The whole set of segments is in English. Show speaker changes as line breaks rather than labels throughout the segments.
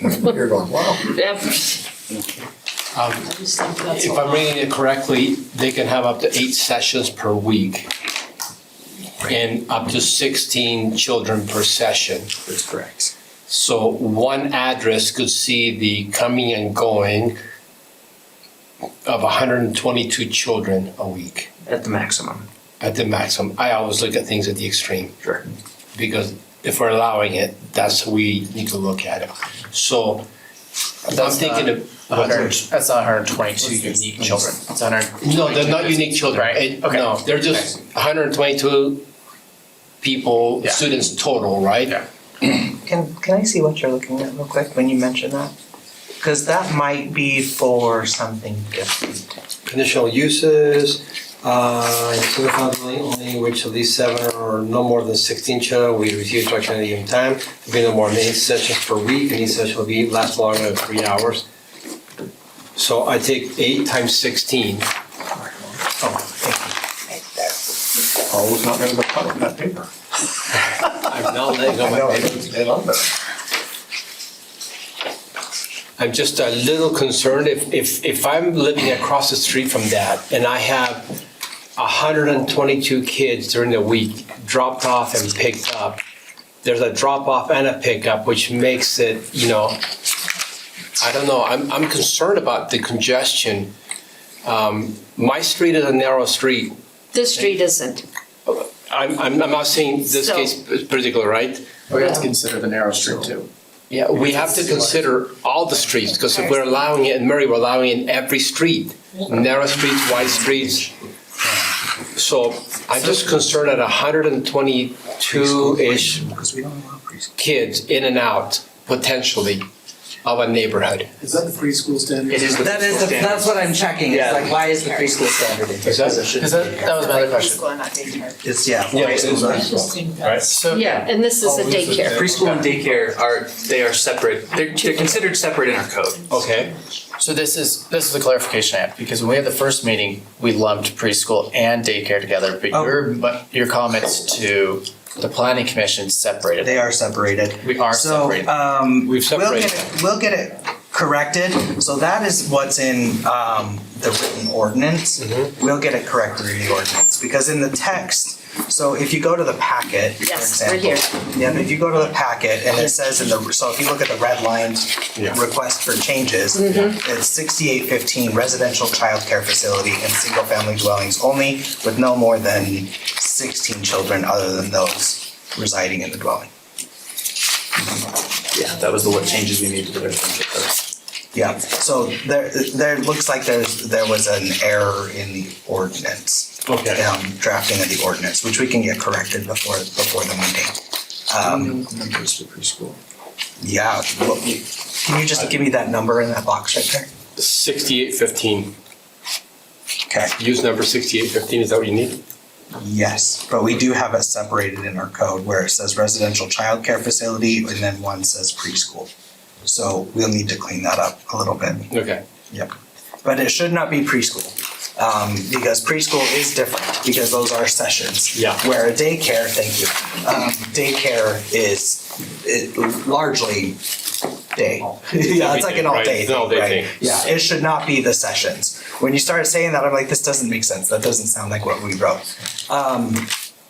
You're going, wow.
I just
Um,
think that's a
If I'm
lot.
reading it correctly, they can have up to eight sessions per week and up to 16 children per session.
That's correct.
So one address could see the coming and going of 122 children a week
At the maximum.
at the maximum. I always look at things at the extreme
Sure.
because if we're allowing it, that's, we need to look at it. So I'm
That's
thinking
not-
of.
100, that's not 122 unique children. It's 100.
No, they're not unique children.
Right,
It-
okay.
No, they're just 122 people,
Yeah.
students total, right?
Yeah.
Can, can I see what you're looking at real quick when you mention that? Because that might be for something different.
Conditional uses, uh, simplify the lang- language of these seven or no more than sixteen children, we refuse to action at any given time. There'll be no more than eight sessions per week, and each session will be last longer than three hours. So I take eight times sixteen.
Oh, it's not gonna be cut on that paper.
I'm not letting go of
I
my
know,
papers.
they love it.
I'm just a little concerned if, if, if I'm living across the street from that and I have hundred and twenty-two kids during the week dropped off and picked up, there's a drop off and a pickup, which makes it, you know, I don't know, I'm, I'm concerned about the congestion. Um, my street is a narrow street.
This street isn't.
I'm, I'm, I'm not saying this
So-
case particular, right?
We have to consider the narrow street too.
Yeah, we have to consider all the streets, because if we're allowing it in Murray, we're allowing it in every street. Narrow streets, wide streets. So I'm just concerned at hundred and twenty-two-ish
Because we don't allow preschool.
kids in and out, potentially, of a neighborhood.
Is that the preschool standard?
It is the
That is, the- that's what I'm checking,
Yeah.
it's like, why is the preschool standard in here?
Is that, that was my other question.
It's, yeah.
Yeah, it is.
So,
Yeah, and this is a daycare.
Preschool and daycare are, they are separate, they're, they're considered separate in our code.
Okay.
so this is, this is a clarification I have, because when we had the first meeting, we lumped preschool and daycare together, but
Oh.
your, but your comments to the planning commission separated.
They are separated.
We are separated.
So, um,
We've
We'll
separated.
get it, we'll get it corrected, so that is what's in, um, the written ordinance.
Mm-hmm.
We'll get it corrected in the ordinance, because in the text, so if you go to the packet, for
Yes, we're
example.
here.
Yeah, if you go to the packet and it says in the, so if you look at the red lines, request for changes,
Mm-hmm.
it's sixty-eight fifteen residential childcare facility and single-family dwellings only with no more than sixteen children other than those residing in the dwelling.
Yeah, that was the what changes we made to the residential code.
Yeah, so there, there looks like there's, there was an error in the ordinance.
Okay.
Um, drafting of the ordinance, which we can get corrected before, before the meeting. Um,
Numbers for preschool.
yeah, well, can you just give me that number in that box right there?
Sixty-eight fifteen,
Okay,
use number sixty-eight fifteen, is that what you need?
yes, but we do have it separated in our code where it says residential childcare facility and then one says preschool. So we'll need to clean that up a little bit.
Okay.
Yep. But it should not be preschool, um, because preschool is different, because those are sessions.
Yeah.
Where a daycare, thank you, um, daycare is, it largely day. Yeah, it's like an all day
Right, all-day
thing,
thing.
right? Yeah, it should not be the sessions. When you started saying that, I'm like, this doesn't make sense, that doesn't sound like what we wrote. Um,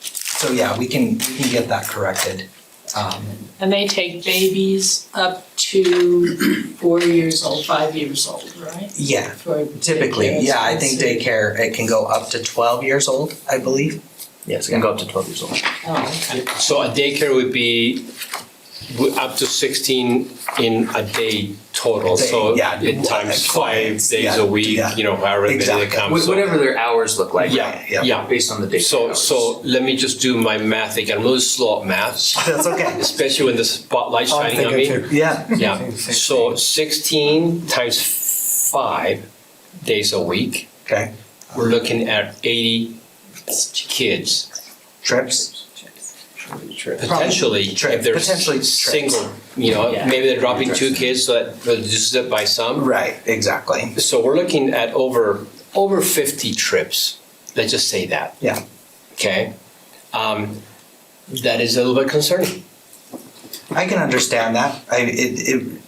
so yeah, we can, we can get that corrected. Um,
And they take babies up to four years old, five years old, right?
yeah,
For
typically,
daycare,
yeah, I think
so-
daycare, it can go up to twelve years old, I believe.
Yes, it can go up to twelve years old.
Oh, okay.
So a daycare would be w- up to 16 in a day total,
Day,
so
yeah,
it times five
clients,
days
yeah,
a week,
yeah.
you know, however many they
Exactly.
come.
Wh-
so-
Whatever their hours look like.
Yeah,
yeah.
yeah.
Based on the daycare
So,
hours.
so let me just do my math again, I'm really slow at math,
That's okay.
especially when the spotlight's shining on me.
Yeah.
Yeah, so 16 times five days a week,
Okay.
we're looking at 80 kids.
Trips.
Potentially,
Tri-
if they're
potentially
s-
trips.
single, you know,
Yeah.
maybe they're dropping two kids, so that reduces it by some.
Right. Exactly.
So we're looking at over, over fifty trips, let's just say that,
Yeah.
okay? Um, that is a little bit concerning.
I can understand that. I it, it